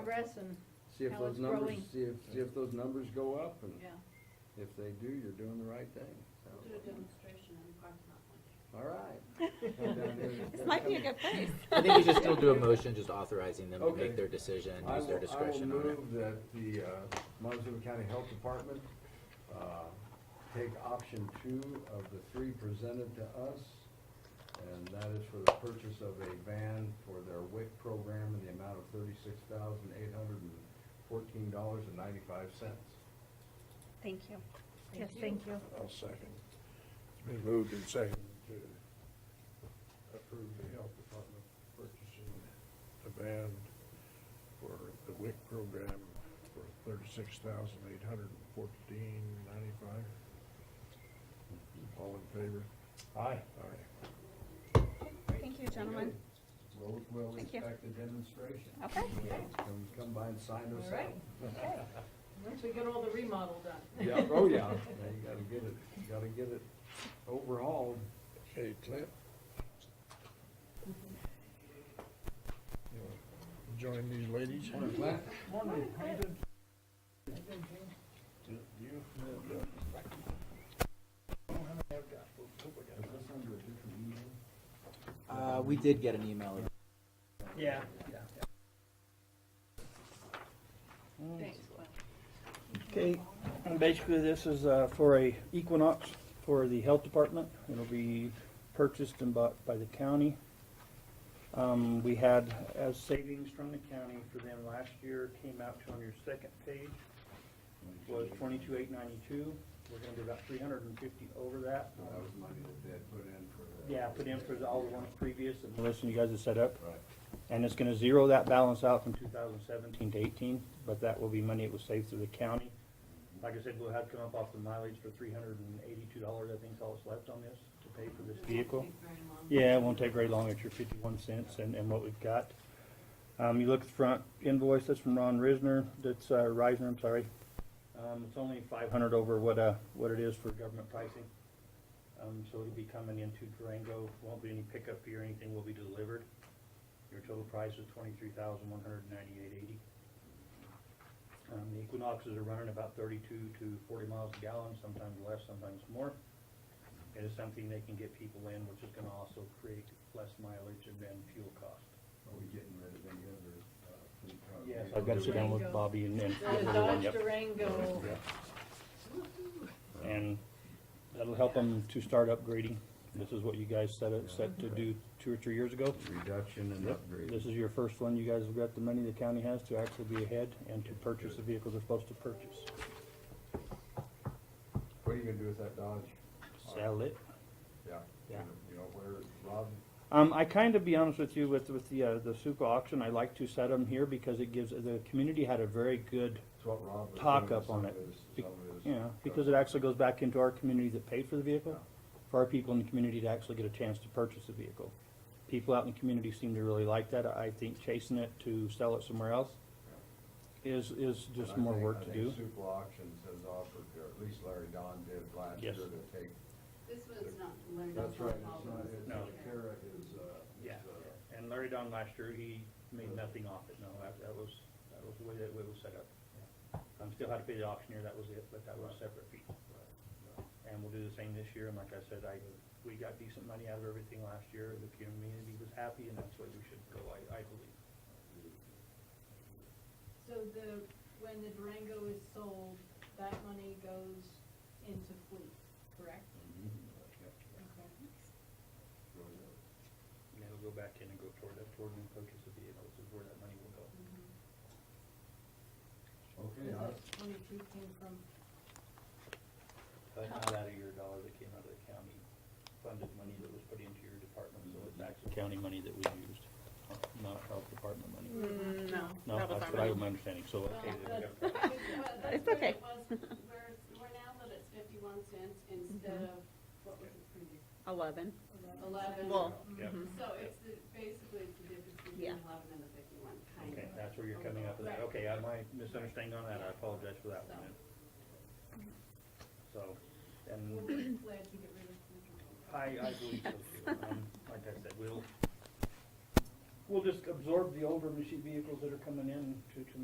progress and, See if How those it's numbers, growing. see if, see if those numbers go up, and yeah, if they do, you're doing the right thing, so. do a demonstration in the parking lot one day. All right. Come down here and- This might be a good place. I think we should still do a motion just authorizing them to Okay. make their decision, I use their will- discretion I will on it. move that the uh, Montezuma County Health Department uh, take option two of the three presented to us, and that is for the purchase of a van for their WIC program in the amount of thirty-six thousand eight hundred and fourteen dollars and ninety-five cents. Thank you. Yes, thank you. I'll second. It's been moved and seconded to approve the health department purchasing the van for the WIC program for thirty-six thousand eight hundred and fourteen ninety-five. All in favor? Aye. Aye. Thank you, gentlemen. We'll, we'll Thank you. expect a demonstration. Okay. Come, come by and sign us All out. right. Once we get all the remodel done. Yeah, oh yeah, Now you gotta get it, you gotta get it overhauled. Okay, Clint? You wanna Join these ladies? Morning, Clint. Is this under a different email? Uh, we did get an email. Yeah. Thanks, Clint. Okay, and basically this is uh, for a Equinox for the health department. It'll be purchased and bought by the county. Um, we had, as savings from the county for them last year, came out to on your second page, was twenty-two eight ninety-two. We're gonna be about three hundred and fifty over that. That was money that they had put in for the. Yeah, put in for the- all the ones previous and Melissa, you guys have set up. Right. And it's gonna zero that balance out from two thousand seventeen to eighteen, but that will be money it was saved through the county. Like I said, we'll have to come up off the mileage for three hundred and eighty-two dollars, I think is all that's left on this, to pay for this vehicle. Thank you very much. Yeah, it won't take very long at your fifty-one cents and, and what we've got. Um, you look at the front invoice, that's from Ron Risner, that's, uh, Reisner, I'm sorry. Um, it's only five hundred over what, uh, what it is for government pricing. Um, so it'll be coming into Durango, won't be any pickup fee or anything will be delivered. Your total price is twenty-three thousand one hundred ninety-eight eighty. Um, the Equinoxes are running about thirty-two to forty miles a gallon, sometimes less, sometimes more. It is something they can get people in, which is gonna also create less mileage and then fuel cost. Are we getting rid of any other, uh, fleet cars? I've gotta sit down with Durango. Bobby and then. The Dodge Durango. And that'll help them to start upgrading. This is what you guys set, it- set to do two or three years ago. Reduction and upgrade. This is your first one. You guys have got the money the county has to actually be ahead and to purchase the vehicles they're supposed to purchase. What are you gonna do with that Dodge? Sell it. Yeah. Yeah. You know, where, Rob, Um, I kind of be honest with you with, with the, uh, the Suco auction, I like to set them here because it gives, the community had a very good, it's what Rob. was Talk doing with up on some it. of his- Be- some of his you know, because it actually goes back into our community that paid for the vehicle, for our people in the community to actually get a chance to purchase the vehicle. People out in the community seem to really like that. I think chasing it to sell it somewhere else is, is just And I more think- work to I do. think Supla Auctions has offered, or at least Larry Don did last year Yes. to take. This one's not, learned That's from right, it's all not, of us. it's, No. Kara is, uh, is, Yeah, uh, and Larry Don last year, he made nothing off it, no, that, that was, that was the way that it was set up. Um, still had to pay the auctioneer, that was it, but that was a separate fee. And we'll do the same this year, and like I said, I, we got decent money out of everything last year, the community was happy, and that's what we should go, I, I believe. So the, when the Durango is sold, that money goes into fleet, correct? Okay. And it'll go back in and go toward, that toward new purchase of vehicles is where that money will go. Mm-hmm. Okay, Is I- that twenty-two came from, But not out of your dollar that came out of the county funded money that was put into your department, so it's actually county money that we used, not health department money. No. No, Mm. that was that's our what I money. was my understanding, so, well, okay, that's, there we but go. that's It's what okay. it was, we're, we're now that it's fifty-one cents instead of, what was it previous? Mm-hmm. Eleven. Eleven. Well, mm-hmm. Yeah. So it's the, basically it's the difference between Yeah. eleven and the fifty-one, kind Okay, of. that's where you're coming up with that, Right. okay, I might misunderstanding on that, I apologize for that one then. So, We'll and be glad to get rid of. I, I believe so too, um, like I said, we'll, We'll just absorb the older machine vehicles that are coming in to, to